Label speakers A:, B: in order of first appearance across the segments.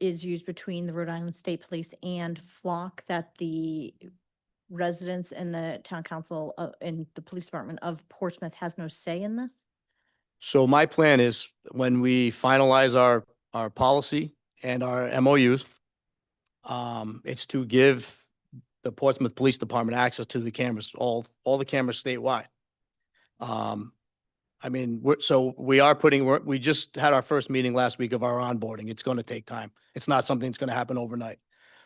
A: is used between the Rhode Island State Police and Flock that the residents and the town council uh, and the police department of Portsmouth has no say in this?
B: So my plan is when we finalize our, our policy and our MOUs, um, it's to give the Portsmouth Police Department access to the cameras, all, all the cameras statewide. Um, I mean, we're, so we are putting, we're, we just had our first meeting last week of our onboarding. It's going to take time. It's not something that's going to happen overnight.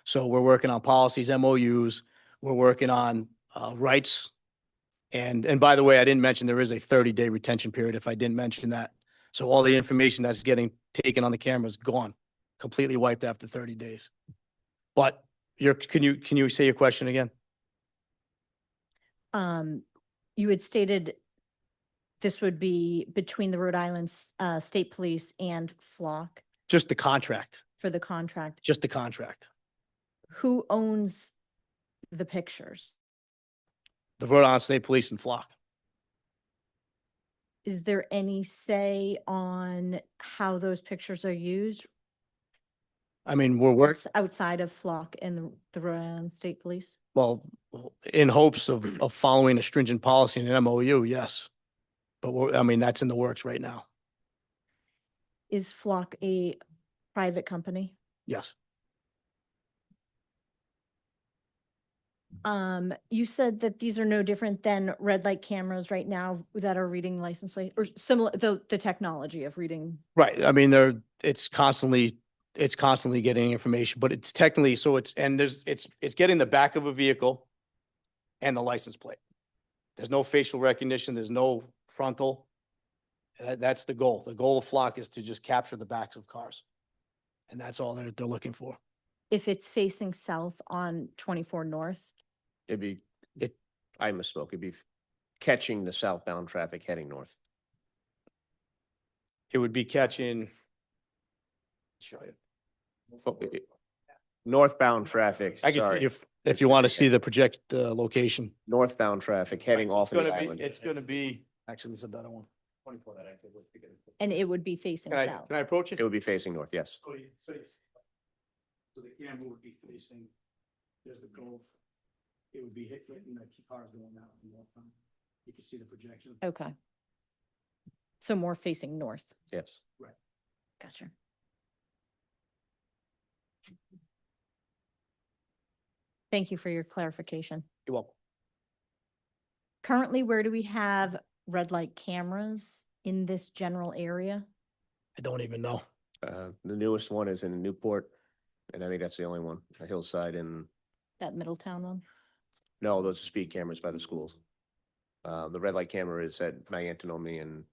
B: So we're working on policies, MOUs, we're working on, uh, rights and, and by the way, I didn't mention there is a thirty day retention period if I didn't mention that. So all the information that's getting taken on the camera is gone, completely wiped after thirty days. But your, can you, can you say your question again?
A: Um, you had stated this would be between the Rhode Island S- uh, State Police and Flock
B: Just the contract,
A: for the contract.
B: just the contract.
A: Who owns the pictures?
B: The Rhode Island State Police and Flock.
A: Is there any say on how those pictures are used
B: I mean, we're work,
A: outs- outside of Flock and the- the Rhode Island State Police?
B: well, in hopes of, of following a stringent policy in an MOU, yes. But we're, I mean, that's in the works right now.
A: Is Flock a private company?
B: Yes.
A: Um, you said that these are no different than red light cameras right now that are reading license plate or similar, the, the technology of reading.
B: Right, I mean, they're, it's constantly, it's constantly getting information, but it's technically, so it's, and there's, it's, it's getting the back of a vehicle and the license plate. There's no facial recognition, there's no frontal. That, that's the goal. The goal of Flock is to just capture the backs of cars. And that's all they're, they're looking for.
A: If it's facing south on twenty-four north,
C: It'd be,
B: It-
C: it, I misspoke. It'd be catching the southbound traffic heading north.
B: It would be catching. Show you.
C: Fo- i- i- Northbound traffic,
B: I can,
C: sorry,
B: if, if you want to see the project, the location.
C: northbound traffic heading
B: It's
C: off of the
B: gonna be,
C: island.
B: it's gonna be, actually, it's a better one. Twenty-four that I think was.
A: and it would be facing
B: Can I,
A: south.
B: can I approach it?
C: It would be facing north, yes.
D: So you face, so the camera would be facing, there's the Gulf. It would be hit, hitting the key cars going out and walk on. You can see the projection.
A: Okay. So more facing north.
C: Yes.
A: Gotcha. Thank you for your clarification.
B: You're welcome.
A: Currently, where do we have red light cameras in this general area?
B: I don't even know.
C: Uh, the newest one is in Newport, and I think that's the only one, a hillside and,
A: That Middletown one?
C: no, those are speed cameras by the schools. Uh, the red light camera is at Magantonome and,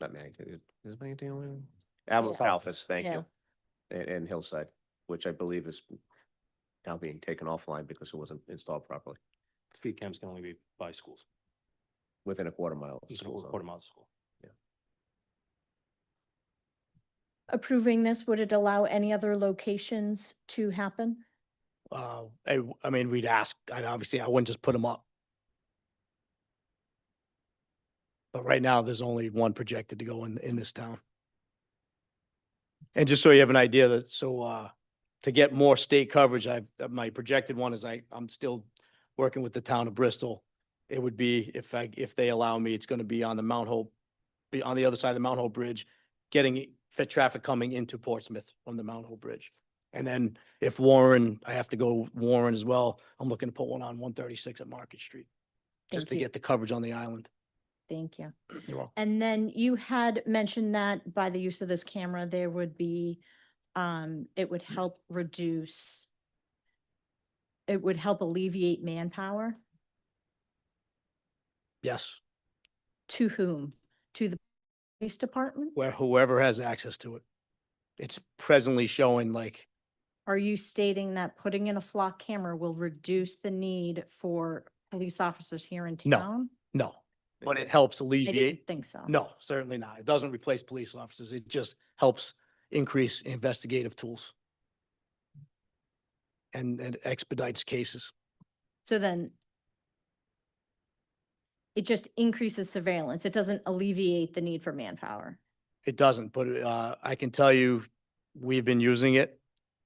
C: not Magantonome, is it Magantonome? Alpha,
A: Yeah.
C: Alphas, thank
A: Yeah.
C: you. And, and Hillside, which I believe is now being taken offline because it wasn't installed properly.
E: speed cams can only be by schools,
C: Within a quarter mile. of the
E: within a
C: school zone.
E: quarter mile of school.
A: Approving this, would it allow any other locations to happen?
B: Uh, I, w- I mean, we'd ask, and obviously I wouldn't just put them up. But right now, there's only one projected to go in, in this town. And just so you have an idea that, so, uh, to get more state coverage, I've, uh, my projected one is I, I'm still working with the town of Bristol. It would be, if I, if they allow me, it's gonna be on the Mount Hope, be on the other side of the Mount Hope Bridge, getting fit traffic coming into Portsmouth from the Mount Hope Bridge. And then if Warren, I have to go Warren as well, I'm looking to put one on one thirty-six at Market Street,
A: Thank
B: just to
A: you.
B: get the coverage on the island.
A: Thank you.
B: You're welcome.
A: And then you had mentioned that by the use of this camera, there would be, um, it would help reduce, it would help alleviate manpower.
B: Yes,
A: To whom? To the police department?
B: where whoever has access to it. It's presently showing like,
A: Are you stating that putting in a flock camera will reduce the need for police officers here in
B: No.
A: town?
B: no, but it helps
A: I didn't
B: alleviate.
A: think so.
B: No, certainly not. It doesn't replace police officers. It just helps increase investigative tools. And, and expedites cases.
A: So then it just increases surveillance. It doesn't alleviate the need for manpower.
B: It doesn't, but, uh, I can tell you, we've been using it